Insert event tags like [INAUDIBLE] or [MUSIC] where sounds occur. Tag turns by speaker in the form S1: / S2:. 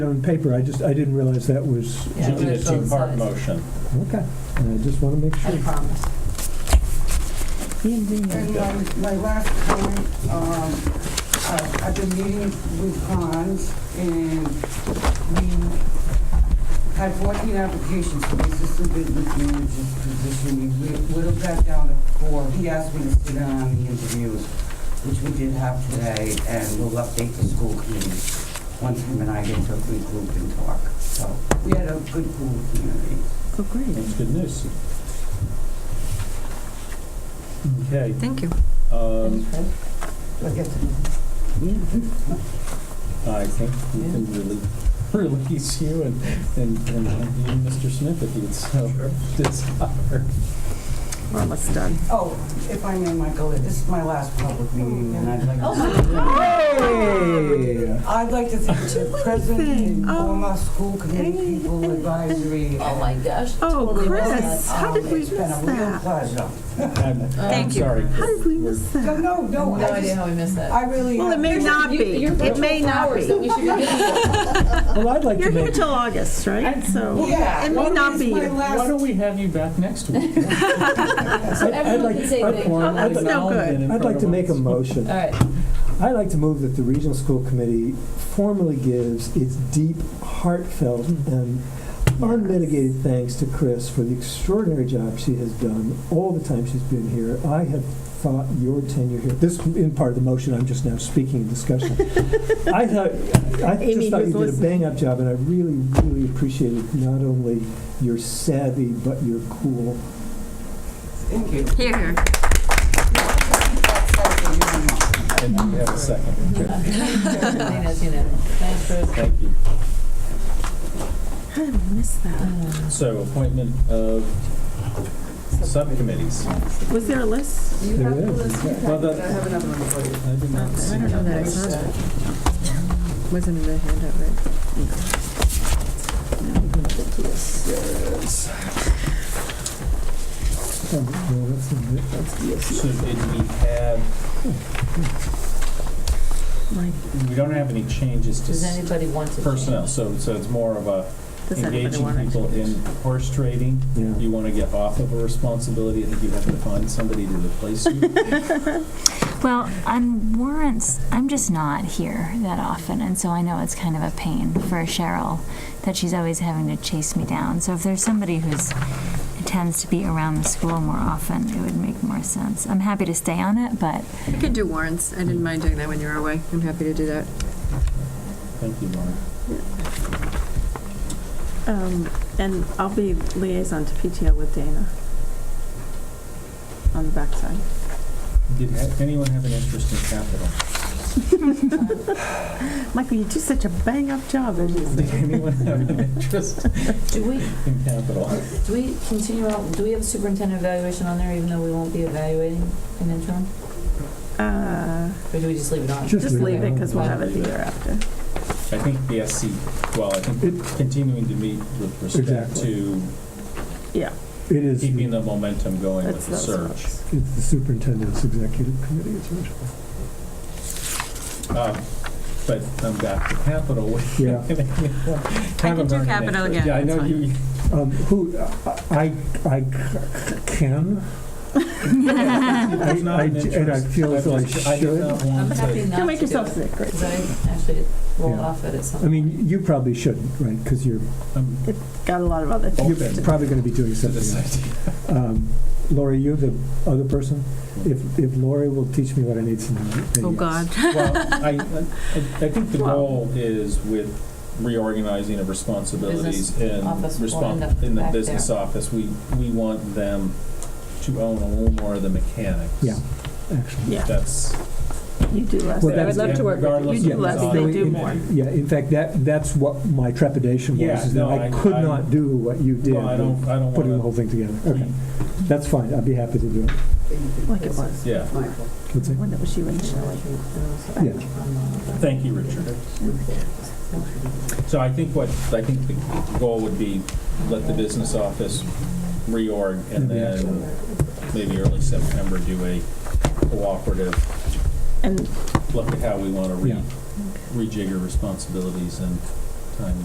S1: On paper, I just, I didn't realize that was,
S2: Yeah,
S3: You did
S2: it's
S3: a
S2: both
S3: two-part
S2: sides.
S3: motion.
S1: okay. And I just want to make
S2: I
S1: sure.
S2: promise.
S4: And my, my last comment, um, I- I've been meeting with Hans, and we had fourteen applications for the assistant business manager's position. We whi- whittled that down to four. He asked me to sit in on the interviews, which we did have today, and we'll update the school committee once him and I get to a big group and talk. So we had a good pool of community.
S5: Oh, great.
S3: That's good news. Okay.
S5: Thank you.
S3: um,
S4: We'll get to know.
S3: I think we can really [LAUGHS] release you and, and and you, Mr. Smith, if you'd so desire.
S5: We're almost done.
S4: Oh, if I may, Michael, this is my last public meeting, and I'd like
S5: Oh,
S4: to...
S1: Hey!
S4: I'd like to thank the president and
S5: Oh.
S4: all my school committee people advisory. um,
S2: Oh, my gosh.
S5: Oh,
S2: totally
S5: Chris,
S2: missed that.
S5: how
S2: Oh,
S5: did
S2: my-
S5: we
S4: It's been a
S5: miss
S4: real
S5: that?
S4: pleasure.
S3: I'm- I'm
S2: Thank
S5: you.
S3: Sorry.
S5: How did we miss
S4: No,
S5: that?
S4: no, no,
S2: Oh, No
S4: I
S2: idea
S4: just,
S2: how we missed that.
S4: I really.
S5: Well, it may not
S2: You-
S5: be.
S2: you're
S5: It may
S2: virtual
S5: not
S2: flowers
S5: be.
S2: that we should be
S5: [LAUGHS]
S2: giving.
S1: Well, I'd like to
S5: You're here
S1: make,
S5: till August, right? So
S4: Yeah.
S5: it may not be.
S4: My
S3: Why
S4: last,
S3: don't we have you back next week?
S1: I'd I'd
S2: everyone
S1: like,
S2: can say they-
S1: I'd-
S5: [LAUGHS]
S3: Formal
S5: That's no
S3: acknowledgement
S5: good.
S3: in
S1: I'd
S3: front
S1: like
S3: of
S1: to make a
S3: us.
S1: motion.
S2: All right. [LAUGHS]
S1: I'd like to move that the Regional School Committee formally gives its deep, heartfelt,
S5: Hmm.
S1: and unmitigated thanks to Chris for the extraordinary job she has done all the time she's been here. I have thought your tenure here, this in part of the motion, I'm just now speaking in
S5: [LAUGHS]
S1: discussion. I thought, I
S5: Amy,
S1: just thought you
S5: who's
S1: did a bang-up job, and I really, really appreciated not only your savvy, but your cool.
S4: thank you.
S5: Here.
S3: And you have a second.
S2: I think that's unanimous. Thanks, Chris.
S3: Thank you.
S5: How did we miss that?
S3: So appointment of subcommittees.
S5: Was there a list?
S1: There it is.
S3: Well, that- I did not see that.
S5: that I saw it. Wasn't in the handout, right?
S1: Oh, no, that's not it.
S3: So did we have,
S5: Like,
S3: we don't have any changes to
S2: Does
S3: s-
S2: anybody want to?
S3: personnel,
S2: change?
S3: so, so it's more of a
S5: does anybody
S3: engaging
S5: want to?
S3: people in horse trading.
S1: Yeah.
S3: You want to get off of a responsibility, I think you have to find somebody to
S1: [LAUGHS]
S3: replace you.
S6: Well, on warrants, I'm just not here that often, and so I know it's kind of a pain for Cheryl that she's always having to chase me down. So if there's somebody who's tends to be around the school more often, it would make more sense. I'm happy to stay on it, but
S5: I could do warrants. I didn't mind doing that when you were away. I'm happy to do that.
S3: Thank you, Lauren.
S7: Um, and I'll be liaison to PTO with Dana on the backside.
S3: Did ha- anyone have an interest in capital?
S7: Michael, you do such a bang-up job.
S3: Did anyone have an interest
S2: [LAUGHS] Do we,
S3: in capital?
S2: do we continue on, do we have superintendent evaluation on there even though we won't be evaluating in interim?
S7: Uh,
S2: Or do we just leave it on?
S1: Just
S7: just leave it, because we'll
S3: Why
S7: have it the
S3: leave it?
S7: year after.
S3: I think the SC, well, I think continuing to meet with respect
S1: Exactly.
S3: to
S1: It is,
S3: keeping the momentum going with
S7: That's
S3: the
S7: those
S3: search.
S7: folks.
S1: it's the superintendent's executive committee, it's what
S3: Um, But I'm back to capital. [LAUGHS]
S1: Yeah.
S3: I
S5: do capital again,
S3: Yeah, I know
S5: that's
S3: you,
S5: [LAUGHS]
S1: Um, who, I, I c- c- can. I-
S3: There's not
S1: I
S3: an
S1: j- And I
S3: interest.
S1: feel as though I
S3: just- I did
S1: should.
S3: not want
S2: I'm
S3: to-
S2: happy not to
S7: Don't make
S2: do
S7: yourself
S2: it,
S7: sick, great.
S2: 'cause I actually rolled
S1: Yeah.
S2: off it at some
S1: I
S2: point.
S1: mean, you probably shouldn't, right, because you're,
S3: I'm
S7: Got a lot of other
S1: Oh,
S7: things.
S3: open
S1: you're probably going to be doing
S3: to this
S1: something else.
S3: idea.
S1: Um, Lori, you're the other person? If, if Lori will teach me what I need to know. then
S5: Oh,
S1: yes.
S5: God.
S3: Well, I, I- I think the
S7: Well-
S3: goal is with reorganizing of responsibilities and
S2: office will end
S3: respon
S2: up
S3: in the
S2: back
S3: business office, we, we want them to own a little more of the mechanics.
S1: Yeah. Actually.
S7: Yeah,
S3: That's.
S7: you do less.
S1: Well,
S7: I
S1: that's-
S7: would love to work with
S3: regardless
S7: you. You
S1: of
S7: do less,
S1: the
S7: they
S1: size.
S7: do
S1: Yeah.
S7: more.
S1: Yeah, in fact, that, that's what my trepidation was,
S3: Yeah,
S1: is that
S3: no,
S1: I
S3: I-
S1: could
S3: I-
S1: not do what you did,
S3: Well, I don't, I don't
S1: putting the
S3: want
S1: whole thing together.
S3: to.
S1: Okay, that's fine, I'd be happy to do it.
S7: Like it was,
S3: Yeah,
S4: Michael.
S1: Let's see.
S7: when it was you and Shelley.
S1: Yeah.
S3: thank you, Richard. So I think what, I think the goal would be let the business office reorg and
S1: Maybe
S3: then maybe early September do a cooperative
S7: And
S3: look at how we want to re
S1: Yeah.
S3: rejigger responsibilities and time